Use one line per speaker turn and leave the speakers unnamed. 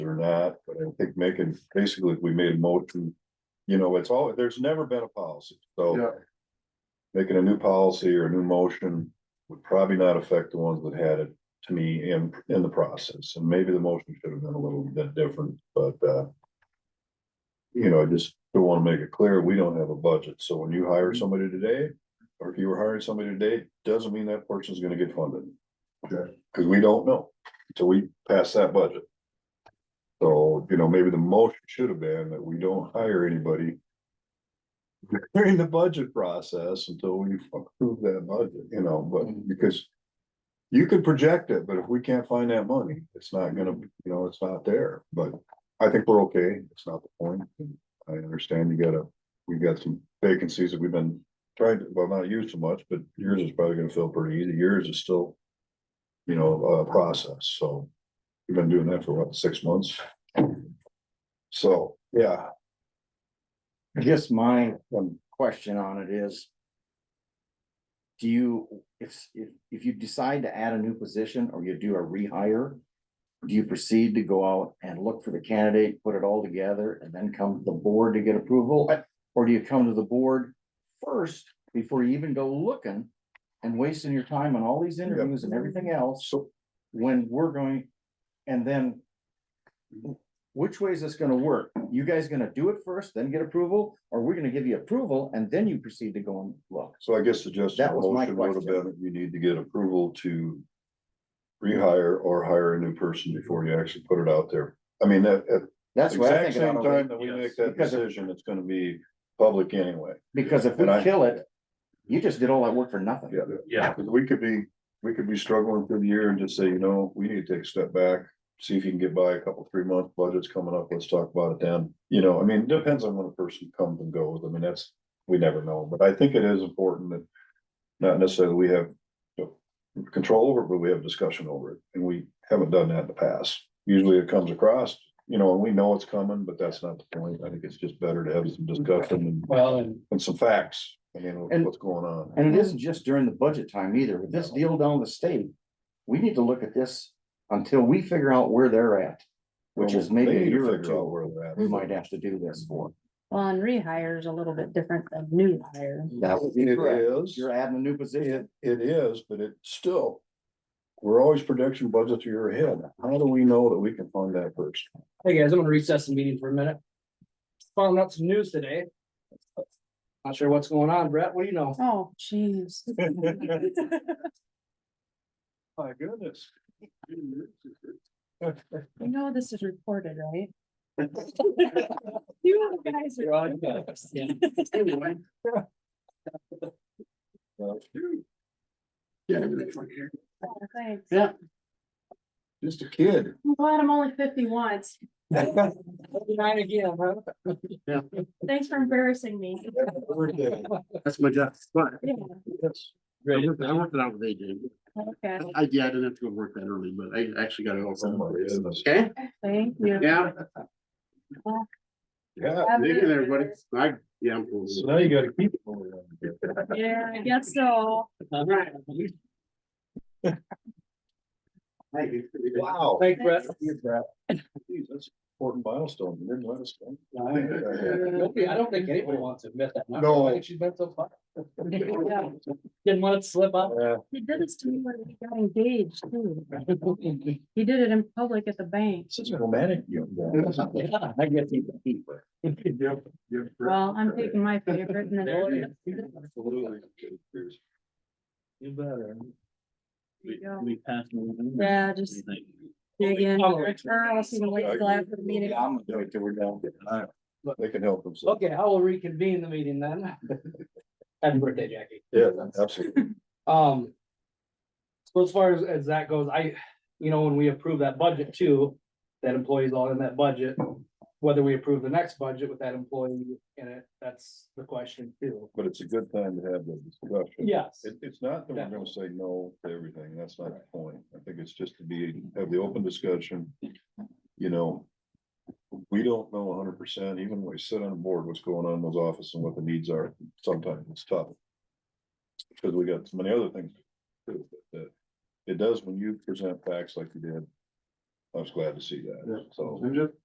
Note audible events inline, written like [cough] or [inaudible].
not, but I think making, basically, if we made a motion. You know, it's all, there's never been a policy, so
Yeah,
making a new policy or a new motion would probably not affect the ones that had it. To me, in, in the process, and maybe the motion should have been a little bit different, but, uh. You know, I just don't wanna make it clear, we don't have a budget, so when you hire somebody today, or if you were hiring somebody today, doesn't mean that person's gonna get funded.
Okay.
Cause we don't know, until we pass that budget. So, you know, maybe the motion should have been that we don't hire anybody. [laughs] During the budget process until we approve that budget, you know, but because. You could project it, but if we can't find that money, it's not gonna, you know, it's not there, but I think we're okay, it's not the point. I understand you gotta, we got some vacancies that we've been tried, to- well, not you so much, but yours is probably gonna fill pretty easy, yours is still. You know, a process, so you've been doing that for what, six months? So, yeah,
I guess my um, question on it is. Do you, if, if, if you decide to add a new position or you do a rehire? Do you proceed to go out and look for the candidate, put it all together and then come to the board to get approval? Or do you come to the board first before you even go looking? And wasting your time on all these interviews and everything else
so
when we're going, and then. Which way is this gonna work? You guys gonna do it first, then get approval, or we're gonna give you approval and then you proceed to go and look?
So I guess the just
That was my
motion would have
question.
been, you need to get approval to. Rehire or hire a new person before you actually put it out there. I mean, that, at
That's
the
what I
exact
think. it
same
ought to
time
be.
that we
yes.
make that
Because if-
decision, it's gonna be public anyway.
Because if we
And I-
kill it, you just did all that work for nothing.
Yeah.
yeah,
Cause we could be, we could be struggling through the year and just say, you know, we need to take a step back. See if you can get by a couple, three month budgets coming up, let's talk about it then, you know, I mean, depends on when a person comes and goes, I mean, that's, we never know, but I think it is important that. Not necessarily we have. you know, Control over, it, but we have discussion over it, and we haven't done that in the past, usually it comes across, you know, and we know it's coming, but that's not the point, I think it's just better to have some discussion and,
Well, and
and some facts. You know,
And-
what's going on.
And it isn't just during the budget time either. With this deal down the state, we need to look at this until we figure out where they're at. Which is maybe
They
a
need to
year or
figure out
two.
where Mm-hmm. they're at.
We might have to do this for.
Well, and rehire is a little bit different than new hire.
That would be correct.
It is,
You're adding a new position.
it, it is, but it still, we're always prediction budgets a year ahead. How do we know that we can fund that first? [laughs]
hey guys, I'm gonna recess the meeting for a minute. Found out some news today. Not sure what's going on, Brett, what do you know?
Oh, jeez. [laughs]
My goodness.
You know this is recorded, right? You guys are.
[laughs]
Oh, Thanks.
Yeah.
[laughs] Just a kid.
I'm glad I'm only fifty once.
Nine again, huh?
Thanks for embarrassing me.
That's my job. But
Yeah,
I worked I worked it out with AJ.
okay,
I, yeah, I didn't have to go work that early, but I actually got it all.
Oh, my
set.
goodness.
Okay,
thank you.
yeah,
Yeah,
Have a
thank
good
you, everybody.
one.
I, yeah, I'm cool.
so now you gotta keep. it going on.
Yeah, I guess so.
Thank you.
Wow.
Thanks, Brett.
Geez, That's an important milestone. You didn't let us go.
Nobody- I don't think anybody wants to admit that.
No.
I think She's been so far.
Yeah.
Didn't want it to slip up.
Yeah,
He did this to me when we got engaged
[laughs]
too. He did it in public at the bank.
Such a romantic young guy.
Yeah, I guess you can keep it.
Well, I'm taking my favorite and then.
You better.
There you go.
We pass them.
Yeah, just dig in,
Oh.
or else you can wait till after the meeting.
Yeah, I'm gonna do it till we're done.
They can help themselves.
Okay, I will reconvene the meeting then. Happy birthday, Jackie.
Yeah, absolutely.
Um. So as far as, as that goes, I, you know, when we approve that budget too, that employee's all in that budget. Whether we approve the next budget with that employee in it, that's the question too.
But it's a good time to have the discussion.
Yes,
It, it's not that we're gonna say no to everything, that's not the point, I think it's just to be, have the open discussion, you know. We don't know hundred percent, even when we sit on a board, what's going on in those offices and what the needs are, sometimes it's tough. Because we got so many other things to do, but uh, it does when you present facts like you did.
I was glad to see
Yeah.
that, so.
I'm just